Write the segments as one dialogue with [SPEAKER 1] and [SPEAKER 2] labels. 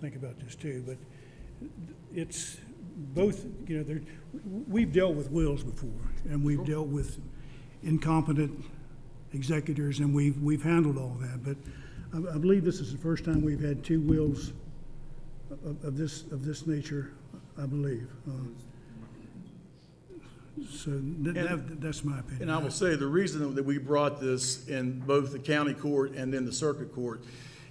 [SPEAKER 1] think about this too, but it's both, you know, there, we've dealt with wills before, and we've dealt with incompetent executors, and we've, we've handled all that, but I, I believe this is the first time we've had two wills of, of this, of this nature, I believe. Uh, So that- that, that's my opinion.
[SPEAKER 2] And I will say, the reason that we brought this in both the county court and then the circuit court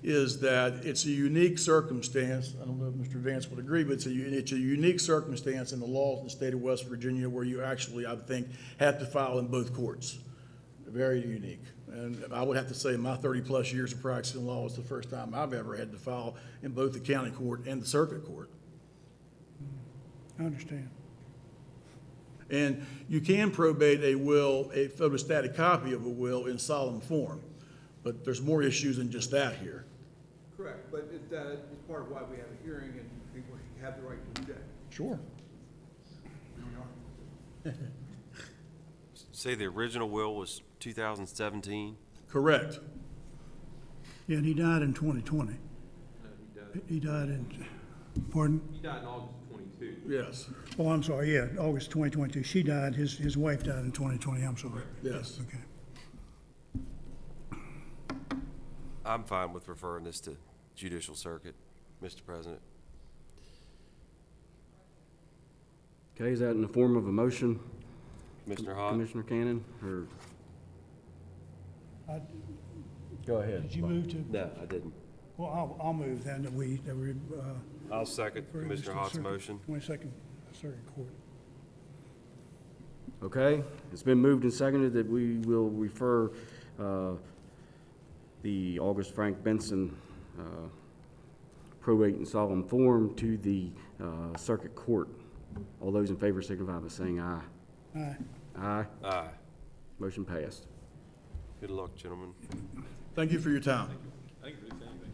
[SPEAKER 2] is that it's a unique circumstance, I don't know if Mr. Vance would agree, but it's a, u- it's a unique circumstance in the laws in the state of West Virginia where you actually, I think, have to file in both courts. Very unique. And I would have to say, my thirty-plus years of practicing law is the first time I've ever had to file in both the county court and the circuit court.
[SPEAKER 1] I understand.
[SPEAKER 2] And you can probate a will, a photostatic copy of a will in solemn form, but there's more issues than just that here.
[SPEAKER 3] Correct, but it, that is part of why we have a hearing and people have the right to do that.
[SPEAKER 2] Sure.
[SPEAKER 4] Say the original will was 2017?
[SPEAKER 2] Correct.
[SPEAKER 1] Yeah, and he died in 2020. He died in, pardon?
[SPEAKER 5] He died in August of twenty-two.
[SPEAKER 2] Yes,
[SPEAKER 1] Oh, I'm sorry, yeah, August 2022. She died, his, his wife died in 2020, I'm sorry.
[SPEAKER 2] yes.
[SPEAKER 1] Okay.
[SPEAKER 4] I'm fine with referring this to judicial circuit, Mr. President.
[SPEAKER 6] Okay, is that in the form of a motion,
[SPEAKER 4] Commissioner Hott?
[SPEAKER 6] Commissioner Cannon, or?
[SPEAKER 1] I-
[SPEAKER 6] Go ahead.
[SPEAKER 1] Did you move to,
[SPEAKER 4] No, I didn't.
[SPEAKER 1] well, I'll, I'll move then that we, that we. uh,
[SPEAKER 4] I'll second
[SPEAKER 1] refer this to
[SPEAKER 4] Commissioner
[SPEAKER 1] the
[SPEAKER 4] Hott's
[SPEAKER 1] circuit-
[SPEAKER 4] motion.
[SPEAKER 1] 22nd Circuit Court.
[SPEAKER 6] Okay, it's been moved and seconded that we will refer uh, the August Frank Benson uh, probate and solemn form to the uh, circuit court. All those in favor signify by saying aye.
[SPEAKER 1] Aye.
[SPEAKER 6] Aye,
[SPEAKER 4] Aye.
[SPEAKER 6] motion passed.
[SPEAKER 4] Good luck, gentlemen.
[SPEAKER 2] Thank you for your time.
[SPEAKER 5] I didn't really say anything.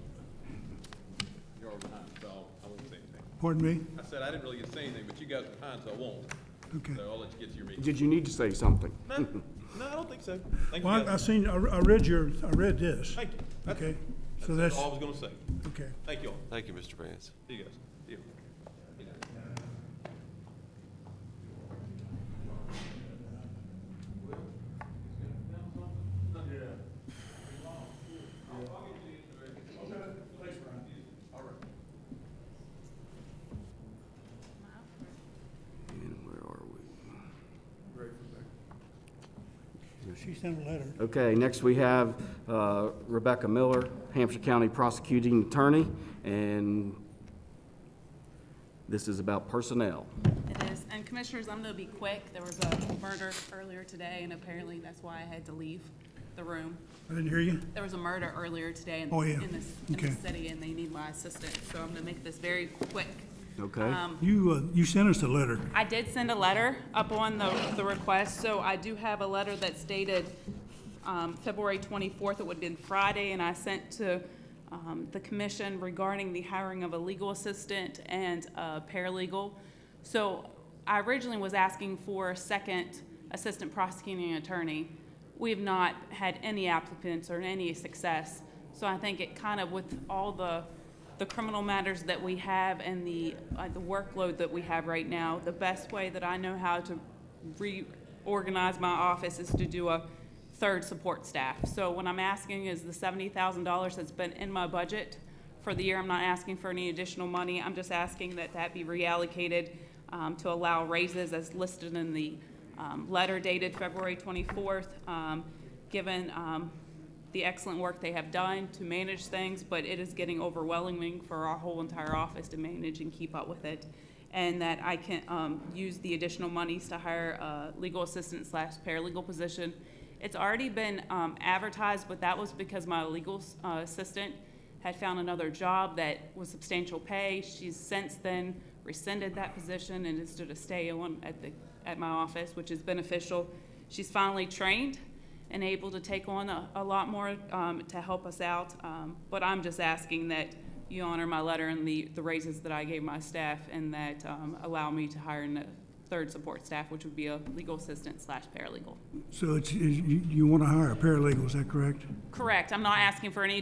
[SPEAKER 5] You're all behind, so I won't say anything.
[SPEAKER 1] Pardon me?
[SPEAKER 5] I said I didn't really say anything, but you guys are behind, so I won't.
[SPEAKER 1] Okay.
[SPEAKER 5] So I'll let you get to your meeting.
[SPEAKER 6] Did you need to say something?
[SPEAKER 5] No, no, I don't think so. Thank you
[SPEAKER 1] Well, I- I
[SPEAKER 5] guys.
[SPEAKER 1] seen, I re- I read your, I read this.
[SPEAKER 5] Thank you. That's-
[SPEAKER 1] Okay, so
[SPEAKER 5] That's
[SPEAKER 1] that's,
[SPEAKER 5] all I was gonna say.
[SPEAKER 1] okay.
[SPEAKER 5] Thank you all.
[SPEAKER 4] Thank you, Mr. Vance.
[SPEAKER 5] See you guys. See you.
[SPEAKER 6] And where are we?
[SPEAKER 1] She sent a letter.
[SPEAKER 6] Okay, next we have uh, Rebecca Miller, Hampshire County Prosecuting Attorney, and this is about personnel.
[SPEAKER 7] It is, and commissioners, I'm gonna be quick, there was a murder earlier today, and apparently that's why I had to leave the room.
[SPEAKER 1] I didn't hear you.
[SPEAKER 7] There was a murder earlier today in,
[SPEAKER 1] Oh, yeah.
[SPEAKER 7] in this, in
[SPEAKER 1] Okay.
[SPEAKER 7] this city, and they need my assistance, so I'm gonna make this very quick.
[SPEAKER 6] Okay.
[SPEAKER 7] Um,
[SPEAKER 1] You, uh, you sent us a letter.
[SPEAKER 7] I did send a letter up on the, the request, so I do have a letter that's dated, um, February twenty-fourth, it would have been Friday, and I sent to, um, the commission regarding the hiring of a legal assistant and a paralegal. So I originally was asking for a second assistant prosecuting attorney. We have not had any applicants or any success, so I think it kind of with all the the criminal matters that we have and the, uh, the workload that we have right now, the best way that I know how to reorganize my office is to do a third support staff. So what I'm asking is the seventy thousand dollars that's been in my budget for the year, I'm not asking for any additional money, I'm just asking that that be reallocated, um, to allow raises as listed in the, um, letter dated February twenty-fourth. Um, given, um, the excellent work they have done to manage things, but it is getting overwhelming for our whole entire office to manage and keep up with it. And that I can, um, use the additional monies to hire a legal assistant slash paralegal position. It's already been, um, advertised, but that was because my legal, uh, assistant had found another job that was substantial pay. She's since then rescinded that position and is to stay on at the, at my office, which is beneficial. She's finally trained and able to take on a, a lot more um, to help us out. Um, But I'm just asking that you honor my letter and the, the raises that I gave my staff and that um, allow me to hire a third support staff, which would be a legal assistant slash paralegal.
[SPEAKER 1] So it's, you, you want to hire a paralegal, is that correct?
[SPEAKER 7] Correct, I'm not asking for any